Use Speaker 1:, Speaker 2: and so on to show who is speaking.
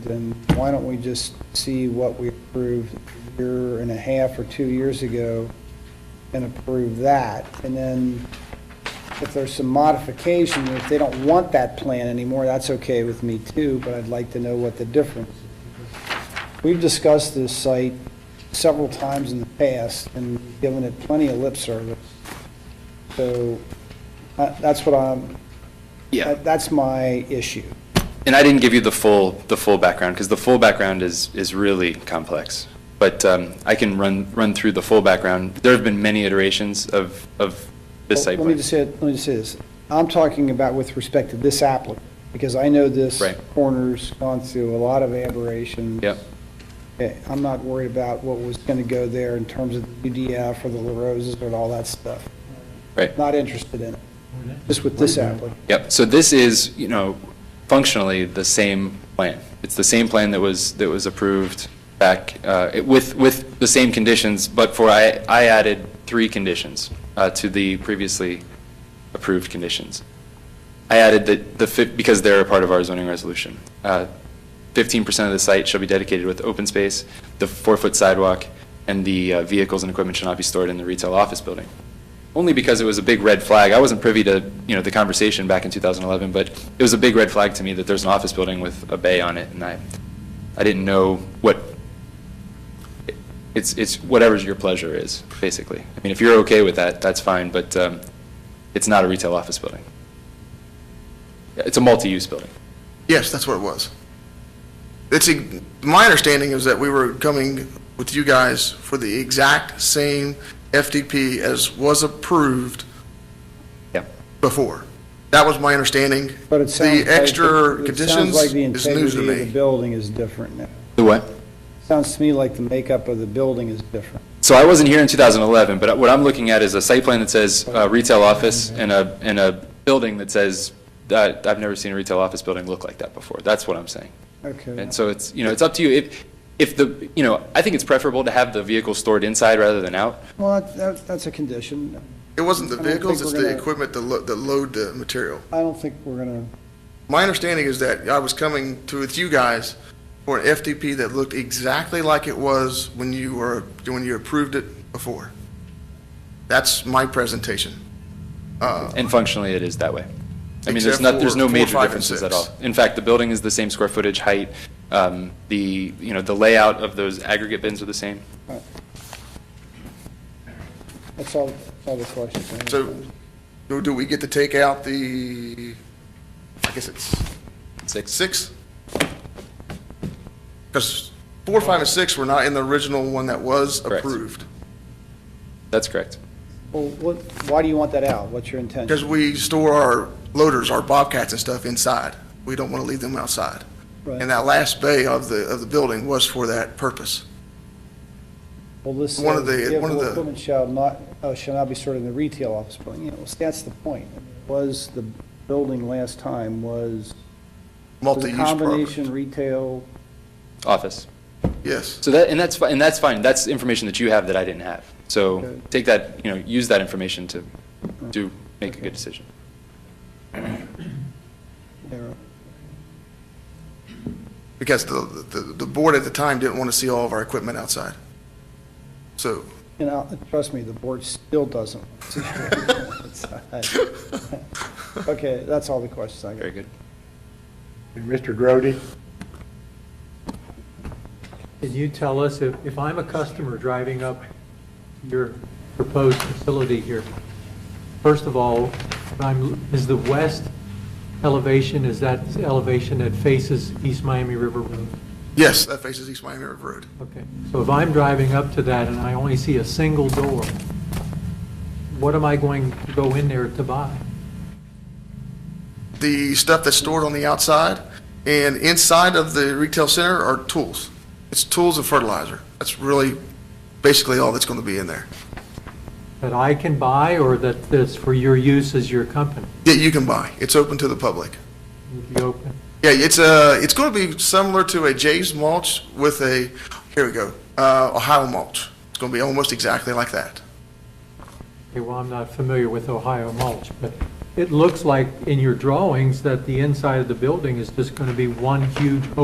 Speaker 1: then why don't we just see what we approved a year and a half or two years ago and approve that? And then if there's some modification, if they don't want that plan anymore, that's okay with me too, but I'd like to know what the difference. is. We've discussed this site several times in the past and given it plenty of lip service. So uh, that's what I'm,
Speaker 2: Yeah,
Speaker 1: that- that's my issue.
Speaker 2: and I didn't give you the full, the full background, because the full background is, is really complex. But um, I can run, run through the full background. There have been many iterations of, of this site
Speaker 1: Let me
Speaker 2: plan.
Speaker 1: just say, let me just say this. I'm talking about with respect to this applicant, because I know this
Speaker 2: Right.
Speaker 1: corner's gone through a lot of aberrations.
Speaker 2: Yep,
Speaker 1: Okay, I'm not worried about what was going to go there in terms of the UDF or the La Rosa's or all that stuff.
Speaker 2: right.
Speaker 1: Not interested in it, just with this applicant.
Speaker 2: Yep, so this is, you know, functionally the same plan. It's the same plan that was, that was approved back, uh, it- with, with the same conditions, but for, I, I added three conditions uh, to the previously approved conditions. I added that the, fif- because they're a part of our zoning resolution. Uh, 15% of the site shall be dedicated with open space, the four-foot sidewalk, and the uh, vehicles and equipment shall not be stored in the retail office building. Only because it was a big red flag. I wasn't privy to, you know, the conversation back in 2011, but it was a big red flag to me that there's an office building with a bay on it, and I, I didn't know what, it's, it's whatever's your pleasure is, basically. I mean, if you're okay with that, that's fine, but um, it's not a retail office building. It's a multi-use building.
Speaker 3: Yes, that's what it was. It's, e- my understanding is that we were coming with you guys for the exact same FDP as was approved
Speaker 2: Yeah.
Speaker 3: before. That was my understanding.
Speaker 1: But it sounds like.
Speaker 3: The extra
Speaker 1: it
Speaker 3: conditions
Speaker 1: Sounds like the
Speaker 3: is news to
Speaker 1: integrity of the
Speaker 3: me.
Speaker 1: building is different now.
Speaker 2: The what?
Speaker 1: Sounds to me like the makeup of the building is different.
Speaker 2: So I wasn't here in 2011, but what I'm looking at is a site plan that says uh, retail office and a, and a building that says, uh, I've never seen a retail office building look like that before. That's what I'm saying.
Speaker 1: Okay.
Speaker 2: And so it's, you know, it's up to you. If, if the, you know, I think it's preferable to have the vehicle stored inside rather than out.
Speaker 1: Well, that- that, that's a condition.
Speaker 3: It wasn't the
Speaker 1: I don't think
Speaker 3: vehicles, it's
Speaker 1: we're
Speaker 3: the
Speaker 1: gonna-
Speaker 3: equipment that lo- that load the material.
Speaker 1: I don't think we're going to,
Speaker 3: My understanding is that I was coming to with you guys for an FDP that looked exactly like it was when you were, when you approved it before. That's my presentation. Uh,
Speaker 2: And functionally, it is that way. I mean, there's
Speaker 3: Except
Speaker 2: not, there's no
Speaker 3: for- for
Speaker 2: major
Speaker 3: five and
Speaker 2: differences at
Speaker 3: six.
Speaker 2: all. In fact, the building is the same square footage, height, um, the, you know, the layout of those aggregate bins are the same.
Speaker 1: that's all, that's all the questions. I have.
Speaker 3: So, do do we get to take out the, I guess it's
Speaker 2: Six.
Speaker 3: six? Because four, five, and six were not in the original one that was
Speaker 2: Correct.
Speaker 3: approved.
Speaker 2: That's correct.
Speaker 1: Well, what, why do you want that out? What's your
Speaker 3: Because
Speaker 1: intention?
Speaker 3: we store our loaders, our Bobcats and stuff inside. We don't want to leave them outside.
Speaker 1: Right.
Speaker 3: And that last bay of the, of the building was for that purpose.
Speaker 1: Well, this
Speaker 3: one of
Speaker 1: says
Speaker 3: the- one of
Speaker 1: vehicle
Speaker 3: the-
Speaker 1: equipment shall not, uh, shall not be stored in the retail office building. You know, so that's the point. Was the building last time was was a
Speaker 3: Multi-use
Speaker 1: combination
Speaker 3: program.
Speaker 1: retail?
Speaker 2: Office.
Speaker 3: Yes.
Speaker 2: So that, and that's, fi- and that's fine, that's information that you have that I didn't have. So
Speaker 1: Okay.
Speaker 2: take that, you know, use that information to do, make a
Speaker 1: Okay.
Speaker 2: good decision.
Speaker 1: era?
Speaker 3: Because the, the, the board at the time didn't want to see all of our equipment outside. So,
Speaker 1: You know, uh, trust me, the board still doesn't. Okay, that's all the questions I got.
Speaker 2: Very good.
Speaker 4: And Mr. Grody?
Speaker 5: Can you tell us, if, if I'm a customer driving up your proposed facility here, first of all, when I'm, is the west elevation, is that the elevation that faces East Miami River Road?
Speaker 3: yes, that faces East Miami River Road.
Speaker 5: Okay, so if I'm driving up to that and I only see a single door, what am I going to go in there to buy?
Speaker 3: the stuff that's stored on the outside, and inside of the retail center are tools. It's tools and fertilizer. That's really basically all that's going to be in there,
Speaker 5: That I can buy or that, that's for your use as your company?
Speaker 3: that you can buy. It's open to the public.
Speaker 5: Would you open?
Speaker 3: Yeah, it's a, it's going to be similar to a Jay's mulch with a, here we go, uh, Ohio mulch. It's going to be almost exactly like that.
Speaker 5: Okay, well, I'm not familiar with Ohio mulch, but it looks like in your drawings that the inside of the building is just going to be one huge